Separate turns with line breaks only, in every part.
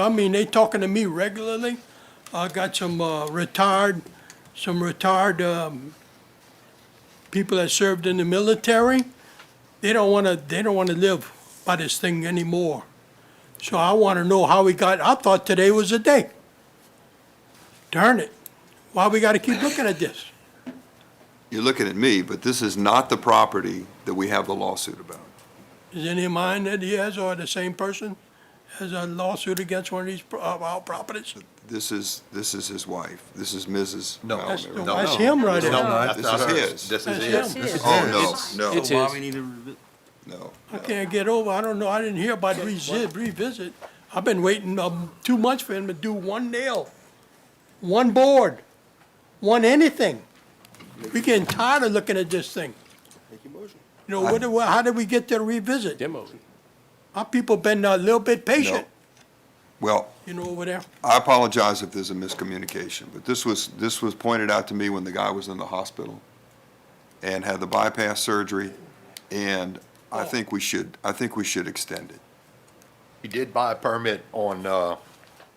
I mean, they talking to me regularly. I got some uh, retired, some retired um, people that served in the military. They don't want to. They don't want to live by this thing anymore. So I want to know how we got. I thought today was the day. Darn it! Why we got to keep looking at this?
You're looking at me, but this is not the property that we have the lawsuit about.
Is any of mine that he has or the same person has a lawsuit against one of these pro- of our properties?
This is, this is his wife. This is Mrs.
No.
Malvin.
That's,
no,
that's him right
No,
there.
that's
This
not
is
hers.
his.
This
That's
is
him.
his.
This is
Oh, no, no,
So why
is.
we need to revi-
no.
I can't get over, I don't know, I didn't hear about revisit, revisit. I've been waiting, um, two months for him to do one nail, one board, one anything. We getting tired of looking at this thing. You know, what, do- how did we get to revisit?
demo.
Our people been a little bit patient,
Well,
you know, over there.
I apologize if there's a miscommunication, but this was, this was pointed out to me when the guy was in the hospital and had the bypass surgery, and I think we should, I think we should extend it.
He did buy a permit on, uh,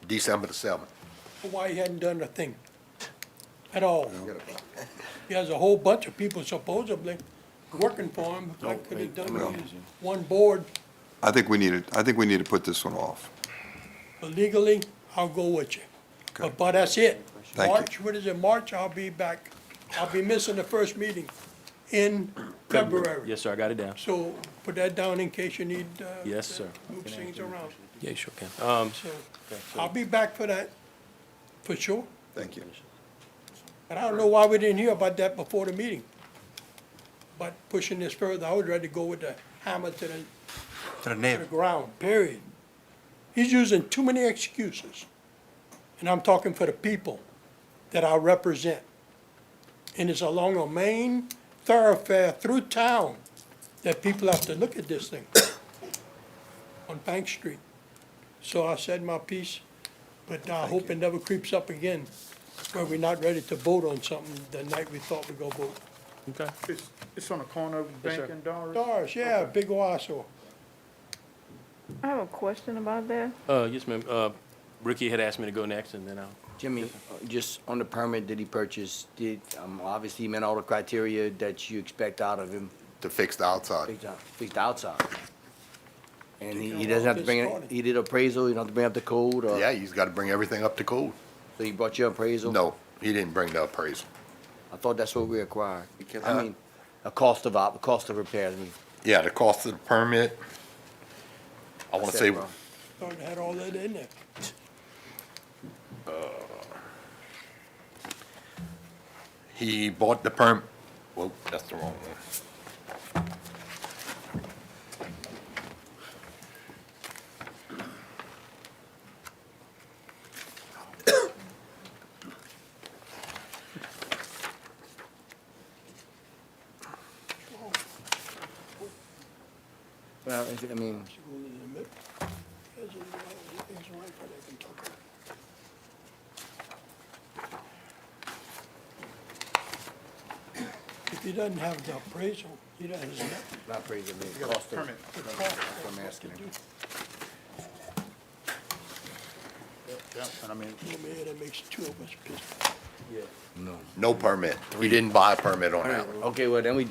December the seventh.
Why he hadn't done a thing at all. He has a whole bunch of people supposedly working for him, but I could have done it as one board.
I think we need to, I think we need to put this one off.
But legally, I'll go with you.
Okay.
But, but that's it.
Thank you.
March, what is it, March, I'll be back. I'll be missing the first meeting in February.
Yes, sir, I got it down.
So put that down in case you need, uh.
Yes,
to
sir.
Move things around,
Yeah, sure can. Um,
so I'll be back for that, for sure.
Thank you.
And I don't know why we didn't hear about that before the meeting. But pushing this further, I would rather go with the hammer to
to
the,
the
to the
neighbor.
ground, period. He's using too many excuses. And I'm talking for the people that I represent. And it's along a main thoroughfare through town that people have to look at this thing on Bank Street. So I said my piece, but I hope it never creeps up again where we're not ready to vote on something the night we thought we go vote.
okay.
It's, it's on the corner of
Yes,
Bank
sir.
and Doris.
Doris, yeah, big Owasso.
I have a question about that.
Uh, yes, ma'am. Uh, Ricky had asked me to go next and then I'll,
Jimmy, uh, just on the permit that he purchased, did, um, obviously he met all the criteria that you expect out of him,
To fix the outside.
fixed out- fixed outside. And he, he doesn't have to bring, it- he did appraisal, you don't have to bring up the code,
Yeah,
or,
he's gotta bring everything up to code.
so he brought your appraisal?
No, he didn't bring the appraisal.
I thought that's what we required.
Uh,
I mean, a cost of op, a cost of repairs, I mean,
Yeah, the cost of the permit. I wanna
Said
say,
wrong.
Thought it had all that in there.
he bought the perm, well, that's the wrong one.
well, is it- I mean,
If he doesn't have the appraisal, he doesn't have nothing
not appraisal, I mean, cost of,
to talk
I'm
about.
asking him.
And I mean,
Oh, man, that makes two of us pissed.
No permit. We didn't buy a permit on that.
Okay, well, then we,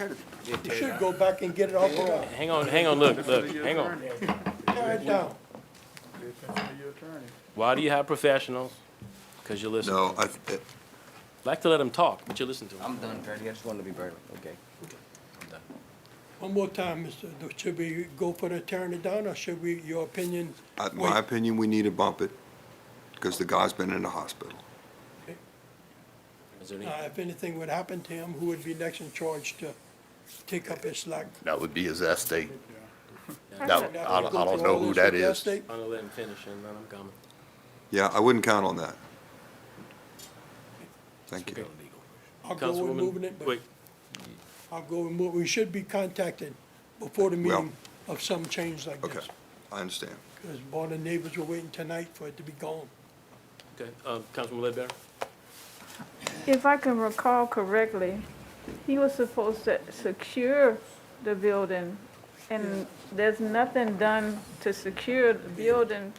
We should go back and get it off around,
hang on, hang on, look, look, hang on.
tear it down.
your attorney.
Why do you have professionals? Because you listen.
No, I, th-
Like to let them talk, but you listen to them.
I'm done, Bernie, I just wanted to be Bernie, okay?
One more time, Mr., Do- should we go for the tearing it down, or should we, your opinion?
I- Uh, my
wait?
opinion, we need to bump it, because the guy's been in the hospital.
Is there any-
Uh, if anything would happen to him, who would be next in charge to take up his slack?
That would be his estate.
I
No,
got-
I don't, I don't know who that is.
I'm gonna let him finish and then I'm coming.
Yeah, I wouldn't count on that. Thank you.
I'll go with moving
Councilwoman,
it, but
wait,
I'll go with move, we should be contacted before the
Well-
meeting of some change like
Okay,
this.
I understand.
Because all the neighbors were waiting tonight for it to be gone.
okay, um, Councilwoman Ledbetter?
If I can recall correctly, he was supposed to secure the building, and there's nothing done to secure the building